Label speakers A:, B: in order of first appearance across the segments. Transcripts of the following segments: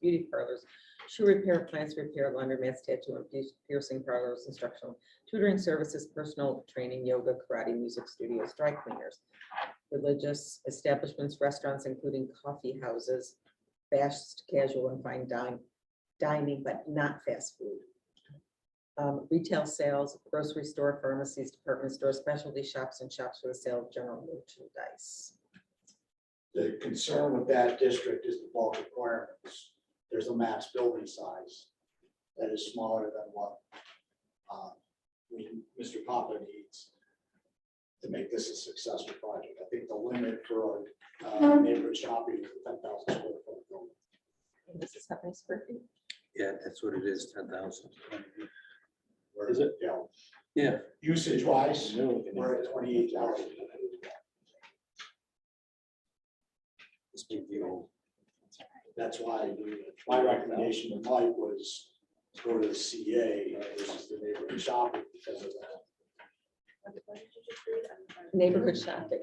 A: beauty parlors, shoe repair, plants repair, laundromats, tattoo and pier- piercing parlors, instructional tutoring services, personal training, yoga, karate, music studios, dry cleaners, religious establishments, restaurants, including coffee houses, fast, casual, and fine dining, dining, but not fast food. Um, Retail sales, grocery store, pharmacies, department stores, specialty shops, and shops for the sale of general merchandise.
B: The concern with that district is the bulk requirements. There's a max building size that is smaller than what uh, we- Mr. Papa needs to make this a successful project. I think the limit for uh, neighborhood shopping is ten thousand square foot building.
A: And This is how many square feet?
C: Yeah, that's what it is, ten thousand.
B: Where, you know,
C: Yeah,
B: usage wise, we're at twenty-eight thousand.
C: it's been the old.
B: That's why my recommendation to Mike was go to the CA versus the neighborhood shopping because of that.
A: Neighborhood shopping.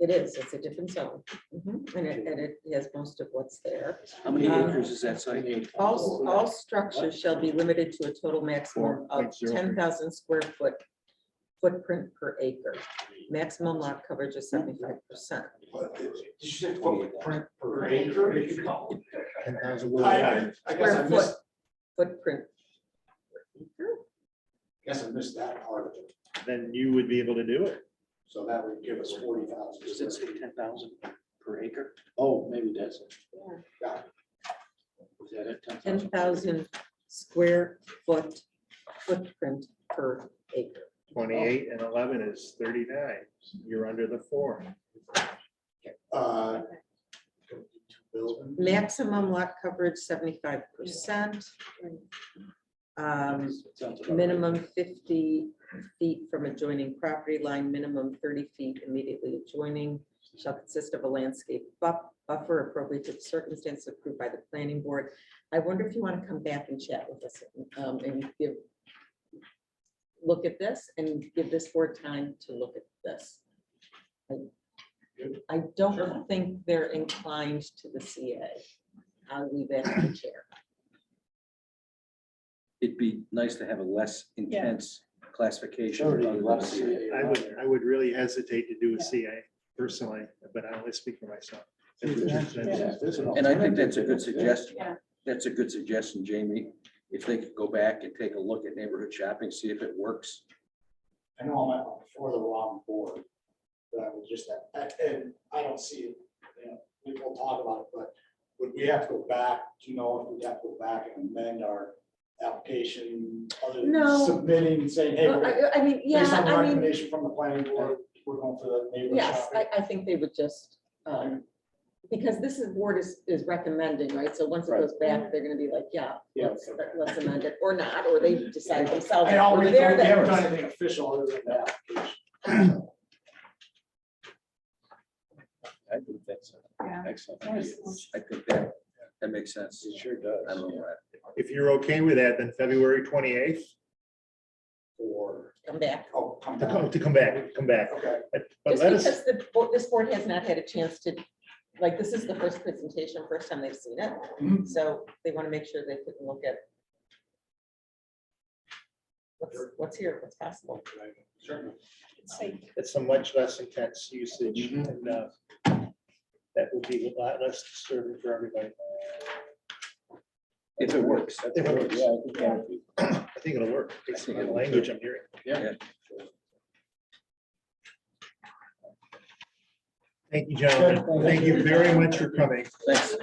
A: It is, it's a different zone. Mhm. And it, and it has most of what's there.
C: How many
A: Uh,
C: acres is that site?
A: All, all structures shall be limited to a total maximum of
D: 4.03.
A: ten thousand square foot footprint per acre. Maximum lot coverage is seventy-five percent.
B: But Did you say
C: footprint
B: per acre?
D: Ten thousand
B: I,
D: word.
B: I, I guess I
A: Square
B: missed,
A: Footprint.
B: guess I missed that part of it.
D: Then you would be able to do it.
B: So that would give us forty thousand.
C: Does it say ten thousand per acre?
D: Oh, maybe that's it.
C: Is that it?
A: ten thousand square foot footprint per acre.
D: Twenty-eight and eleven is thirty-nine. You're under the four.
B: Uh, building.
A: Maximum lot coverage seventy-five percent. Um,
C: Sounds about right.
A: minimum fifty feet from adjoining property line, minimum thirty feet immediately adjoining. Shall consist of a landscape buff, buffer appropriate to the circumstances approved by the planning board. I wonder if you want to come back and chat with us um, and give. Look at this and give this board time to look at this. I- I don't think they're inclined to the CA. I'll leave that to the chair.
C: It'd be nice to have a less intense classification.
B: Sure, you
C: other than
B: love
C: a
B: to see
C: CA.
B: it.
D: I would, I would really hesitate to do a CA personally, but I only speak for myself.
C: And I think that's a good suggestion.
E: Yeah.
C: That's a good suggestion, Jamie. If they could go back and take a look at neighborhood shopping, see if it works.
B: I know I'm on for the wrong board, but I would just, I- and I don't see it, you know, we will talk about it, but would we have to go back, do you know if we'd have to go back and amend our application? other than
E: No.
B: Submitting and saying, hey, we're-
E: I mean, yeah,
B: based on the
E: I mean,
B: recommendation from the planning board, we're going for the neighborhood
A: Yes,
B: shopping.
A: I, I think they would just, um, because this is, board is, is recommending, right? So once it goes back, they're gonna be like, yeah,
B: Yeah,
A: let's,
B: okay.
A: let's amend it, or not, or they decide themselves.
B: I already,
A: Well,
B: they
A: they're
B: haven't
A: the-
B: done anything official other than the application.
C: I think that's
E: Yeah.
C: excellent.
E: Yes.
C: I think that, that makes sense.
B: It sure does.
C: I love that.
D: If you're okay with that, then February twenty-eighth,
B: Or,
A: Come back.
B: oh, come
D: to come,
B: down.
D: to come back, come back.
B: Okay,
D: But but
A: Just
D: let us,
A: because the, bo- this board has not had a chance to, like, this is the first presentation, first time they've seen it.
B: Mhm.
A: So they wanna make sure they can look at what's, what's here, what's possible.
B: sure.
D: it's a much less intense usage and uh, that would be a lot less disturbing for everybody.
C: If it works.
D: If it works.
C: Yeah, I think that would be-
D: I think it'll work. It's the language I'm hearing. Thank you, gentlemen. Thank you very much for coming.
C: Thanks.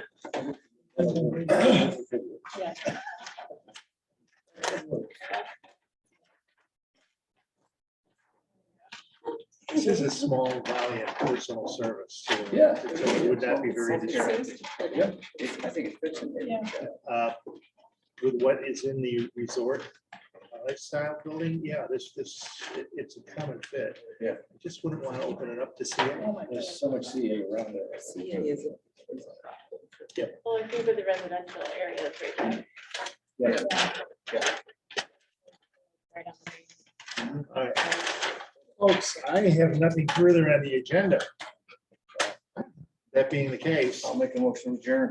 D: This is a small valley of personal service. so
C: Yeah.
D: It would not be very distracting.
C: Yep, I think it fits in. there.
D: Uh, With what is in the resort uh, lifestyle building, yeah, this, this, it- it's a common fit.
C: Yeah.
D: I Just wouldn't want to open it up to see it.
C: There's so much CA around there.
A: Is it-
E: well, if you were the residential area, it's right there.
C: Yeah.
E: Yeah. Right on the-
D: All right. Folks, I have nothing further on the agenda. That being the case.
C: make a motion, Jared.